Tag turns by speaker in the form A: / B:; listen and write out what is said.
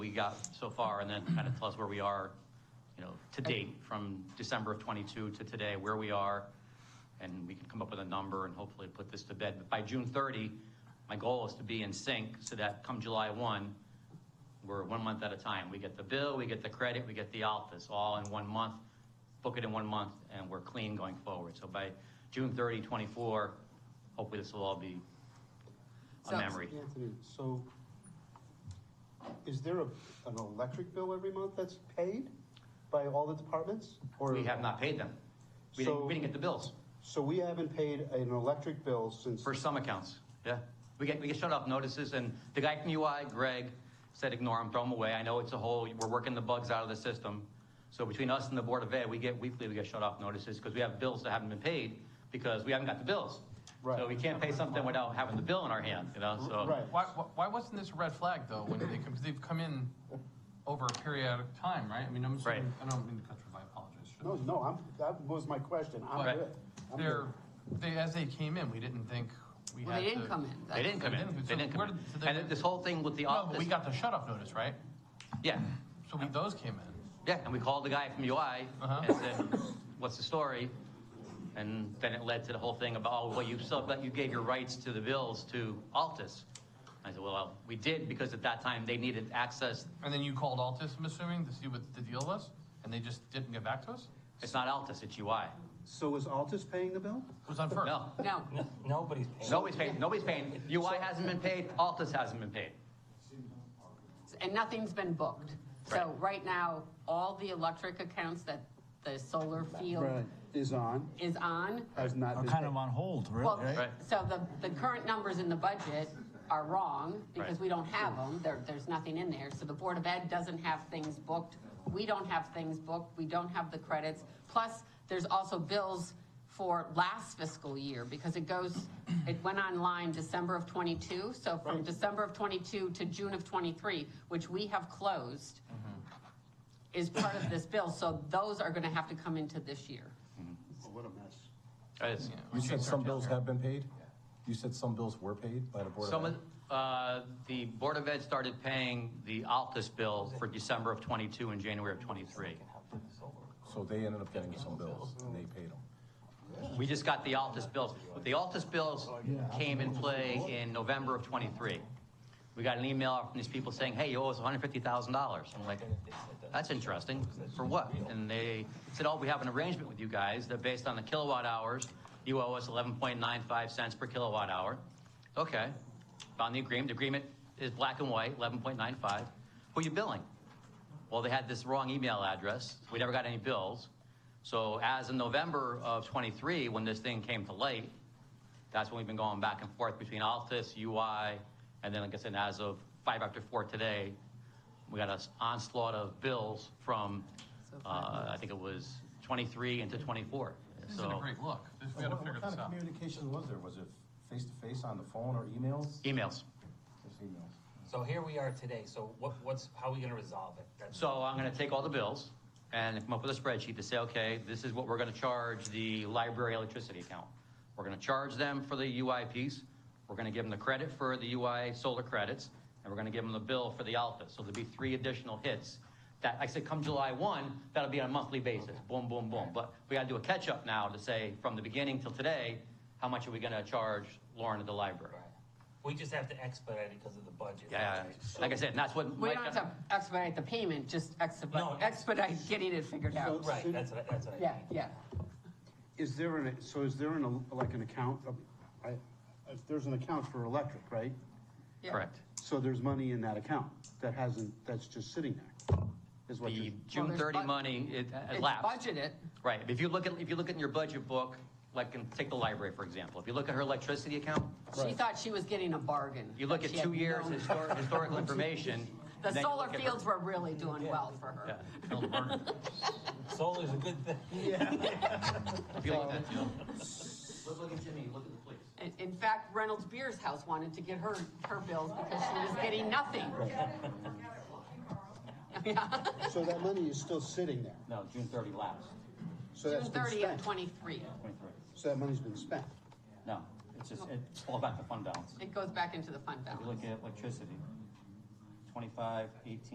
A: got so far, and then kind of tell us where we are, you know, to date, from December of '22 to today, where we are, and we can come up with a number and hopefully put this to bed. But by June 30, my goal is to be in sync so that come July 1, we're one month at a time. We get the bill, we get the credit, we get the office, all in one month. Book it in one month, and we're clean going forward. So by June 30, 24, hopefully this will all be a
B: So-
A: memory.
C: Anthony, so is there a, an electric bill every month that's paid by all the departments? Or
A: We have not paid them. We didn't,
C: So-
A: we didn't get the bills
C: So we haven't paid an electric bill since,
A: for some accounts, yeah. We get, we get shut off notices, and the guy from UI, Greg, said ignore them, throw them away. I know it's a whole, we're working the bugs out of the system. So between us and the Board of Ed, we get weekly, we get shut off notices, because we have bills that haven't been paid, because we haven't got the bills. So
C: Right.
A: we can't pay something without having the bill in our hand, you know, so.
C: right?
D: Why, why- why wasn't this a red flag though, when they, because they've come in over a periodic time, right? I mean, I'm assuming, I don't mean to cut you off, I apologize. Should-
C: No, no, I'm, that was my question. I'm good.
D: But
C: I'm
D: they're,
C: good.
D: they, as they came in, we didn't think we had
B: Well,
D: to.
B: they didn't come in.
A: They didn't come in, they didn't come
D: So where did- so
A: in.
D: they-
A: And this whole thing with the
D: No, but
A: office,
D: we got the shut off notice, right?
A: yeah,
D: So we, those came in.
A: yeah, and we called the guy from UI
D: Uh-huh.
A: and said, what's the story? And then it led to the whole thing about, oh, well, you sub, but you gave your rights to the bills to Altus. I said, well, we did because at that time they needed access,
D: And then you called Altus, I'm assuming, to see what the deal was, and they just didn't get back to us?
A: it's not Altus, it's UI.
C: So is Altus paying the bill?
D: It was on first.
A: No,
B: No,
E: N- Nobody's paying.
A: nobody's paying, nobody's paying. UI hasn't been paid, Altus hasn't been paid.
B: and nothing's been booked. So
A: Right.
B: right now, all the electric accounts that the solar field
C: Is on,
B: is on,
C: has not
E: Are
C: been
E: kind
C: paid.
E: of on hold,
B: well,
E: really, right?
A: Right.
B: so the, the current numbers in the budget are wrong because
A: Right.
B: we don't have them. There, there's nothing in there. So the Board of Ed doesn't have things booked. We don't have things booked. We don't have the credits. Plus, there's also bills for last fiscal year because it goes, it went online December of twenty-two. So from
C: Right.
B: December of twenty-two to June of twenty-three, which we have closed, is part of this bill. So those are gonna have to come into this year.
C: Oh, What a mess.
A: It's-
D: Yeah, we
F: You
D: should start
F: said some bills
D: down
F: have been paid? You said some bills were paid by the Board of
A: Some
F: Ed?
A: of, uh, the Board of Ed started paying the Altus bill for December of '22 and January of '23.
F: So they ended up getting some bills and they paid them.
A: We just got the Altus bills. But the Altus bills came in play in November of '23. We got an email from these people saying, hey, you owe us $150,000. I'm like, that's interesting. For what? And they said, oh, we have an arrangement with you guys that based on the kilowatt hours, you owe us 11.95 cents per kilowatt hour. Okay. Found the agreement. The agreement is black and white, 11.95. Who are you billing? Well, they had this wrong email address. We never got any bills. So as of November of '23, when this thing came to light, that's when we've been going back and forth between Altus, UI, and then, like I said, as of five after four today, we got an onslaught of bills from, uh, I think it was 23 into 24.
D: This isn't a
A: So,
D: great look. This- We gotta
F: What
D: figure
F: what kind
D: this
F: of
D: out.
F: communication was there? Was it face-to-face on the phone or emails?
A: emails.
F: Just emails.
E: So here we are today, so what, what's, how are we gonna resolve it? That's-
A: So I'm gonna take all the bills and come up with a spreadsheet to say, okay, this is what we're gonna charge the library electricity account. We're gonna charge them for the UI piece, we're gonna give them the credit for the UI solar credits, and we're gonna give them the bill for the Alpha. So there'll be three additional hits. That, like I said, come July one, that'll be on a monthly basis, boom, boom, boom. But we gotta do a catch-up now to say, from the beginning till today, how much are we gonna charge Lauren at the library?
E: Right. We just have to expedite it because of the budget.
A: Yeah, like I said, and that's what.
B: We
A: Mike- uh-huh.
B: don't have to expedite the payment, just
E: No.
B: expedite, expedite getting it figured out.
E: Right, that's what, I- that's what I mean.
B: Yeah, yeah.
C: Is there an, so is there an, like an account, of- I, if there's an account for electric, right?
B: yeah.
A: Correct.
C: So there's money in that account that hasn't, that's just sitting there, is what
A: The
C: you
A: June
B: there's
A: 30
B: bu-
A: money, it uh,
B: It's
A: lapsed.
B: budgeted,
A: Right, if you look at, if you look at your budget book, like, in- take the library, for example, if you look at her electricity account,
B: she thought she was getting a bargain.
A: you look
B: but
A: at
B: she had
A: two years
B: no-
A: histor- historical information.
B: The
A: and then you
B: solar
A: look at her-
B: fields were really doing well for her.
A: Yeah.
E: Solar's a good thing.
A: If you look at that, you know. Look at Jimmy, look at the police.
B: In, in fact, Reynolds Beer's house wanted to get her, her bills because she was getting nothing. Yeah.
C: So that money is still sitting there,
A: No, June 30 lapsed,
C: so
B: June
C: that's been
B: thirty of
C: spent,
B: twenty-three.
A: 23.
C: so that money's been spent.
A: No, it's just, it falls back to fund balance.
B: It goes back into the fund balance.
A: look at electricity, 25, 18,